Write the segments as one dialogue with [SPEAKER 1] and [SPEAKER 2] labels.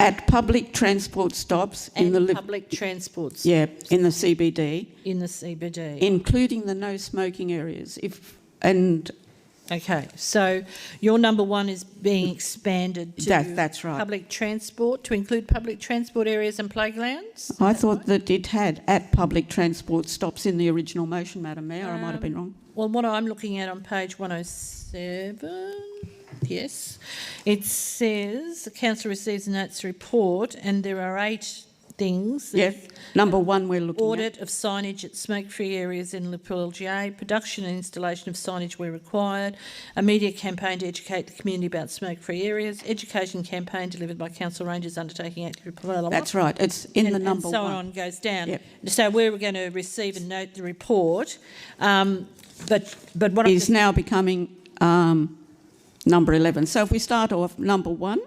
[SPEAKER 1] at public transport stops in the
[SPEAKER 2] and
[SPEAKER 1] Liv-
[SPEAKER 2] public transports
[SPEAKER 1] yeah in the CBD,
[SPEAKER 2] in the CBD.
[SPEAKER 1] including the no smoking areas. If and
[SPEAKER 2] okay, so your number one is being expanded to
[SPEAKER 1] That- that's right.
[SPEAKER 2] public transport to include public transport areas and playgrounds.
[SPEAKER 1] I thought that it had at public transport stops in the original motion, Madam Mayor. I might have
[SPEAKER 2] Um,
[SPEAKER 1] been wrong.
[SPEAKER 2] Well, what I'm looking at on page 107, yes, it says the council receives and notes the report, and there are eight things.
[SPEAKER 1] Yeah, number one we're looking at.
[SPEAKER 2] Audit of signage at smoke-free areas in Liverpool LGA, production and installation of signage where required, a media campaign to educate the community about smoke-free areas, education campaign delivered by council rangers undertaking active. blah, blah, blah.
[SPEAKER 1] That's right. It's in the
[SPEAKER 2] And-
[SPEAKER 1] number
[SPEAKER 2] and so
[SPEAKER 1] one.
[SPEAKER 2] on goes down.
[SPEAKER 1] Yep.
[SPEAKER 2] So we we're going to receive and note the report, um, but but what I'm
[SPEAKER 1] is now becoming um, number 11. So if we start off number one,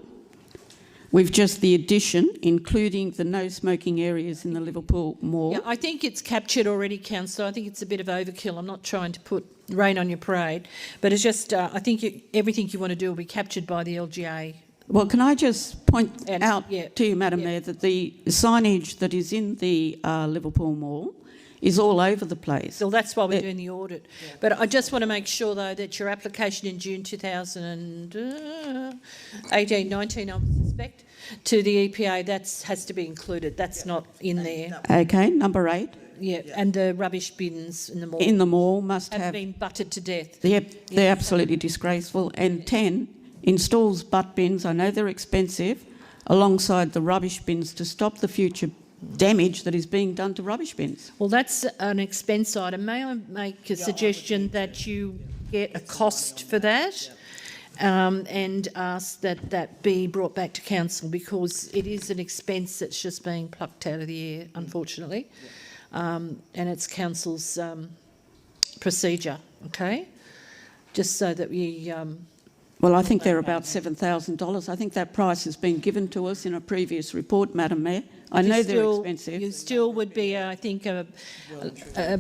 [SPEAKER 1] we've just the addition, including the no smoking areas in the Liverpool Mall.
[SPEAKER 2] Yeah, I think it's captured already, councillor. I think it's a bit of overkill. I'm not trying to put rain on your parade, but it's just, uh, I think you- everything you want to do will be captured by the LGA.
[SPEAKER 1] Well, can I just point
[SPEAKER 2] And-
[SPEAKER 1] out
[SPEAKER 2] yeah,
[SPEAKER 1] to you, Madam
[SPEAKER 2] yeah.
[SPEAKER 1] Mayor, that the signage that is in the uh, Liverpool Mall is all over the place.
[SPEAKER 2] So that's why we're
[SPEAKER 1] Yeah.
[SPEAKER 2] doing the audit. But I just want to make sure, though, that your application in June 2018, 19, uh, I suspect, to the E EPA, that has to be included. That's not in there.
[SPEAKER 1] Okay, number eight,
[SPEAKER 2] Yeah, and the rubbish bins in the mall
[SPEAKER 1] in the mall must
[SPEAKER 2] have
[SPEAKER 1] have,
[SPEAKER 2] been buttered to death.
[SPEAKER 1] they're, they're absolutely disgraceful. And 10, installs butt bins, I know they're expensive, alongside the rubbish bins to stop the future damage that is being done to rubbish bins.
[SPEAKER 2] Well, that's an expense item. May I make a suggestion that you get a cost for that? Um, and ask that that be brought back to council because it is an expense that's just being plucked out of the air, unfortunately. Um, and it's council's, um, procedure, okay? Just so that we, um,
[SPEAKER 1] Well, I think they're about $7,000. I think that price has been given to us in a previous report, Madam Mayor. I
[SPEAKER 2] you
[SPEAKER 1] know they're
[SPEAKER 2] still-
[SPEAKER 1] expensive.
[SPEAKER 2] You still would be, uh, I think, a, a,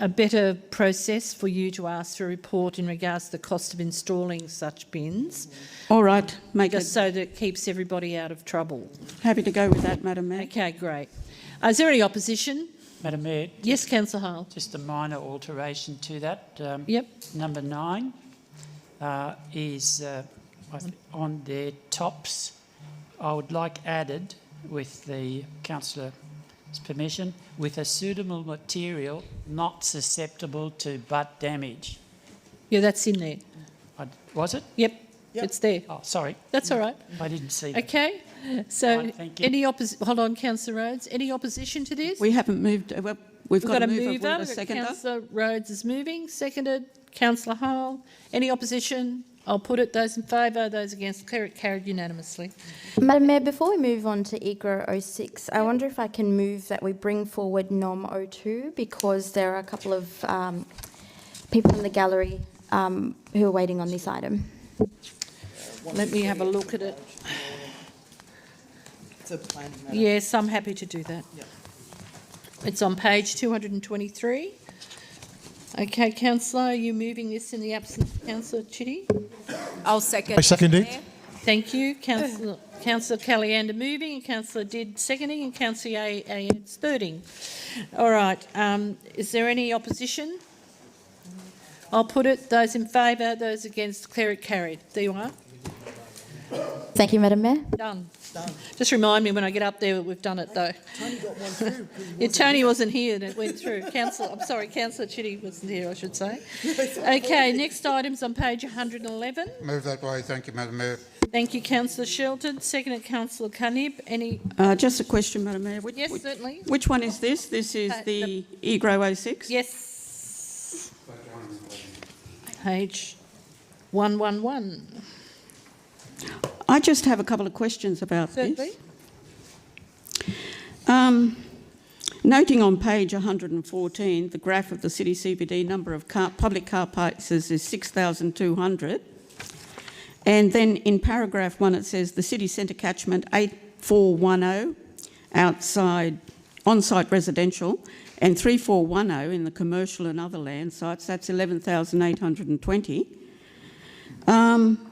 [SPEAKER 2] a better process for you to ask for a report in regards to the cost of installing such bins,
[SPEAKER 1] All right, make
[SPEAKER 2] just
[SPEAKER 1] it,
[SPEAKER 2] so that it keeps everybody out of trouble.
[SPEAKER 1] happy to go with that, Madam Mayor.
[SPEAKER 2] Okay, great. Uh, Is there any opposition?
[SPEAKER 3] Madam Mayor,
[SPEAKER 2] Yes, councillor Hale?
[SPEAKER 3] just a minor alteration to that. Um,
[SPEAKER 2] Yep,
[SPEAKER 3] Number nine uh, is uh, I th- on their tops. I would like added, with the councillor's permission, with a suitable material not susceptible to butt damage.
[SPEAKER 2] yeah, that's in there.
[SPEAKER 3] I- Was it?
[SPEAKER 2] Yep, it's there.
[SPEAKER 3] Oh, sorry,
[SPEAKER 2] That's all right.
[SPEAKER 3] I didn't see that.
[SPEAKER 2] Okay, so
[SPEAKER 3] Fine, thank you.
[SPEAKER 2] any oppos, hold on, councillor Rhodes, any opposition to this?
[SPEAKER 1] We haven't moved, uh, well, we've
[SPEAKER 2] We've
[SPEAKER 1] got
[SPEAKER 2] got
[SPEAKER 1] a
[SPEAKER 2] a
[SPEAKER 1] mover, we've
[SPEAKER 2] mover,
[SPEAKER 1] got a
[SPEAKER 2] we've got
[SPEAKER 1] seconder.
[SPEAKER 2] councillor Rhodes is moving, seconded, councillor Hall. Any opposition? I'll put it, those in favour, those against, declare it carried unanimously.
[SPEAKER 4] Madam Mayor, before we move on to EGRA 06, I wonder if I can move that we bring forward NOM 02 because there are a couple of um, people in the gallery um, who are waiting on this item.
[SPEAKER 2] Let me have a look at it.
[SPEAKER 5] It's a planning matter.
[SPEAKER 2] Yes, I'm happy to do that.
[SPEAKER 5] Yep.
[SPEAKER 2] It's on page two hundred and twenty-three. Okay, councillor, are you moving this in the absence of councillor Chitty?
[SPEAKER 6] I'll second.
[SPEAKER 7] I second it.
[SPEAKER 6] Mayor.
[SPEAKER 2] Thank you, councillor, councillor Caliander moving, and councillor Did seconding, and councillor A, A, thirding. All right, um, is there any opposition? I'll put it, those in favour, those against, declare it carried. There you are,
[SPEAKER 4] Thank you, Madam Mayor.
[SPEAKER 2] done. Just remind me when I get up there that we've done it though.
[SPEAKER 5] Tony got one through. 'cause he
[SPEAKER 2] Yeah,
[SPEAKER 5] wasn't
[SPEAKER 2] Tony wasn't here and it went through. Councillor, I'm sorry, councillor Chitty wasn't here, I should say. Okay, next item's on page hundred and eleven.
[SPEAKER 8] Move that way. Thank you, Madam Mayor.
[SPEAKER 2] Thank you, councillor Shelton, seconded councillor Cunib. Any,
[SPEAKER 1] Uh, Just a question, Madam Mayor. Which-
[SPEAKER 2] yes,
[SPEAKER 1] which-
[SPEAKER 2] certainly?
[SPEAKER 1] Which one is this? This is
[SPEAKER 2] Uh,
[SPEAKER 1] the oh EGRO 06?
[SPEAKER 2] Yes. Page one one one.
[SPEAKER 1] I just have a couple of questions about
[SPEAKER 2] Certainly.
[SPEAKER 1] this. Um, noting on page 114, the graph of the city CBD number of car, public car places is 6,200. And then in paragraph one, it says the city centre catchment 8410 outside on site residential and 3410 in the commercial and other land sites. That's 11,820. Um,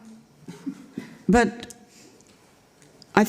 [SPEAKER 1] but